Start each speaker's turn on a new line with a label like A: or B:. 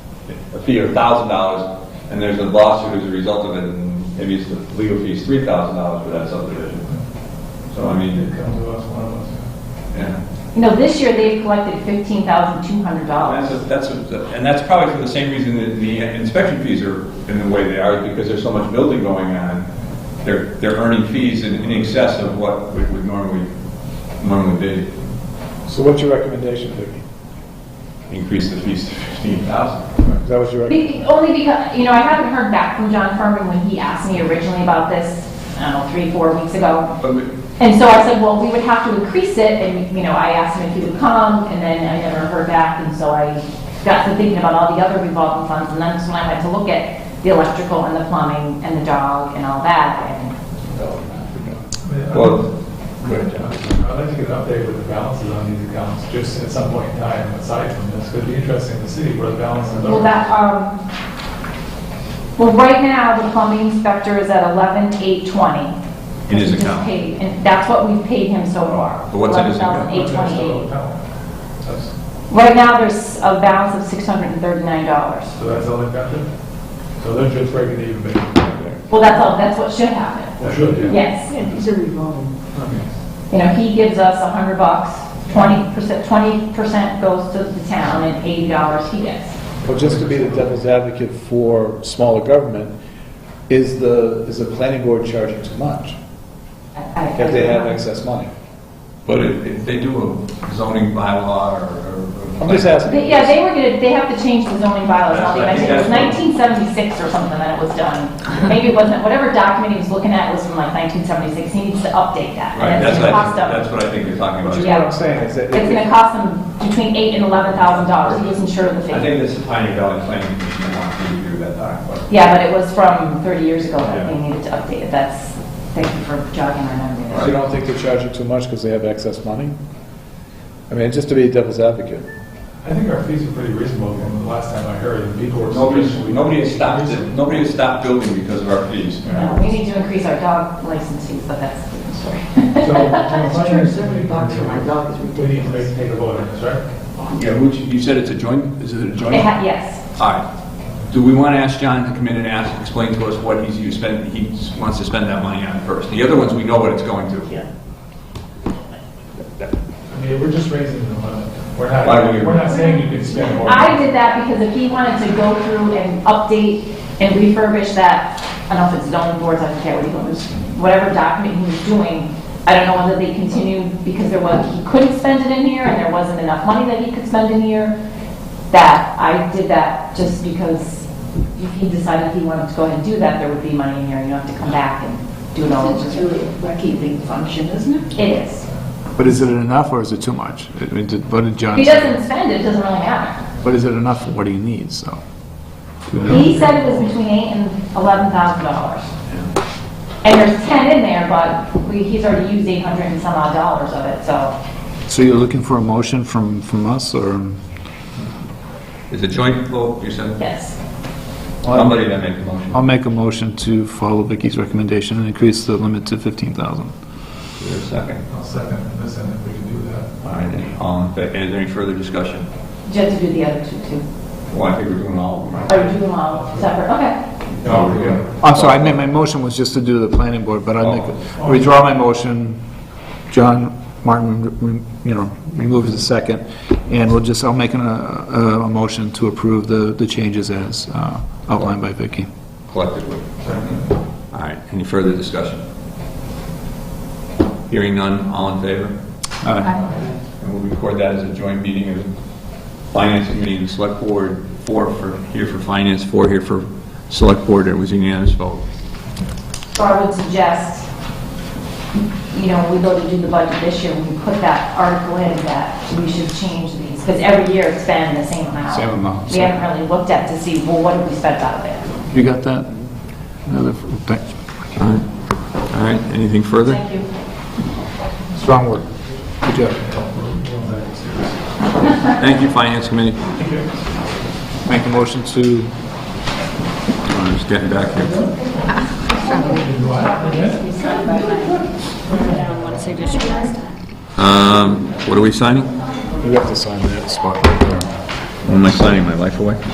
A: a fee of thousand dollars, and there's a lawsuit as a result of it, and maybe it's the legal fee's three thousand dollars for that subdivision. So I mean, it,
B: Come to us, one of us.
A: yeah,
C: You know, this year they've collected fifteen thousand two hundred dollars.
A: that's, a- that's, a- and that's probably for the same reason that the inspection fees are in the way they are, because there's so much building going on. They're, they're earning fees in, in excess of what we would normally, normally be.
B: So what's your recommendation, Vicki?
A: Increase the fees to fifteen thousand.
B: Is that what your, rec-
C: Be- Only because, you know, I haven't heard back from John Furman when he asked me originally about this, I don't know, three, four weeks ago.
A: But we-
C: And so I said, well, we would have to increase it, and, you know, I asked him if he would come, and then I never heard back, and so I got to thinking about all the other revolving funds, and that's when I went to look at the electrical and the plumbing and the dog and all that, and
A: Well,
B: Good, John. I'd like to get an update with the balances on these accounts, just at some point in time, aside from this, it'd be interesting to see where the balances
C: Well,
B: are.
C: that, um, well, right now, the plumbing inspector is at eleven eight twenty.
A: In his account.
C: And that's what we've paid him so far.
A: But what's in his account?
C: $11,828.
B: That's-
C: Right now, there's a balance of six hundred and thirty-nine dollars.
B: So that's all they've got there? So they're just breaking even, maybe, there.
C: Well, that's all, that's what should happen.
B: Well, should, yeah.
C: Yes.
D: Yeah, these are revolving.
C: You know, he gives us a hundred bucks, twenty percent, twenty percent goes to the town, and eighty dollars he gets.
E: Well, just to be the devil's advocate for smaller government, is the, is the planning board charging too much
C: I- I-
E: if they have excess money?
A: But if, if they do a zoning bylaw or- or.
E: I'm just
C: They-
E: asking.
C: Yeah, they were gonna, they have to change the zoning bylaws, now. They
A: That's- I think
C: mentioned it was
A: that's
C: nineteen seventy-six or something that it was done. Maybe it wasn't, whatever document he was looking at was from like nineteen seventy-six, he needs to update that.
A: Right,
C: And
A: that's,
C: it's
A: what
C: gonna
A: I-
C: cost
A: that's
C: them,
A: what I think you're talking
E: Which is
A: about.
E: what I'm saying, is that
C: it's gonna
E: if-
C: cost them between eight and eleven thousand dollars, he wasn't sure of the
A: I
C: figure.
A: think this is Pioneer Valley Planning Commission wants to review that document.
C: Yeah, but it was from thirty years ago
A: Yeah.
C: that they needed to update it, that's, thank you for jogging our
E: if
C: memory.
E: you don't think they're charging too much because they have excess money? I mean, just to be devil's advocate.
B: I think our fees are pretty reasonable from the last time I heard, and people were.
A: Nobody's, nobody has stopped, it- nobody has stopped building because of our fees.
C: Uh, We need to increase our dog license fees, but that's a different story.
B: So, so
D: That's
B: my-
D: true, seventy bucks for my dog is
B: We need to make,
D: ridiculous.
B: take a vote on this, right?
F: Yeah, which, you said it's a joint, is it a joint?
C: It ha- Yes.
F: All right. Do we want to ask John to come in and ask, explain to us what he's, you spend, he wants to spend that money on first? The other ones, we know what it's going to.
D: Yeah.
B: I mean, we're just raising the limit. We're not,
A: Why do you-
B: we're not saying you can spend more.
C: I did that because if he wanted to go through and update and refurbish that, I don't know if it's zoning boards, I don't care what he was, whatever document he was doing, I don't know whether they continued because there was, he couldn't spend it in here and there wasn't enough money that he could spend in here. That, I did that just because if he decided he wanted to go ahead and do that, there would be money in here, and you don't have to come back and do it all
D: It's
C: over.
D: really a bookkeeping function, isn't it?
C: It is.
E: But is it enough or is it too much? I mean, did- what did
C: If
E: John
C: he
E: say?
C: doesn't spend it, it doesn't really matter.
E: But is it enough for what he needs, so?
C: He said it was between eight and eleven thousand dollars. And there's 10 in there, but we, he's already used 800 and some odd dollars of it, so.
E: So you're looking for a motion from, from us or?
A: Is it joint vote, you said?
C: Yes.
A: Somebody that make the motion.
E: I'll make a motion to follow Vicky's recommendation and increase the limit to 15,000.
A: Is there a second?
B: I'll second this, and if we can do that.
A: All right, then. all in fa- is there any further discussion?
C: You have to do the other two, too.
A: Well, I think we're doing all of them, right?
C: Or do them all separate, okay.
B: No, we're good.
E: I'm sorry, I meant my motion was just to do the planning board, but I make, withdraw my motion. John Martin, rem- you know, removes the second, and we'll just, I'll make an, uh, a, a motion to approve the, the changes as uh, outlined by Vicky.
A: Collectively.
F: All right, any further discussion? Hearing none, all in favor?
E: Aye.
A: And we'll record that as a joint meeting of the Finance Committee and the Select Board,
F: Four for, here for finance, four here for select board, it was unanimous vote.
C: So I would suggest, you know, when we go to do the budget this year, we put that article in that we should change these, because every year it's been the same amount.
E: Same amount,
C: We haven't really looked at to see, well, what have we spent out of it?
E: You got that? Another, thank-
F: All right, all right, anything further?
C: Thank you.
E: strong word. Good job.
F: Thank you, Finance Committee.
E: Make a motion to
F: I'm just getting back here. Um, what are we signing?
E: You have to sign that spot right there.
F: Am I signing my life away?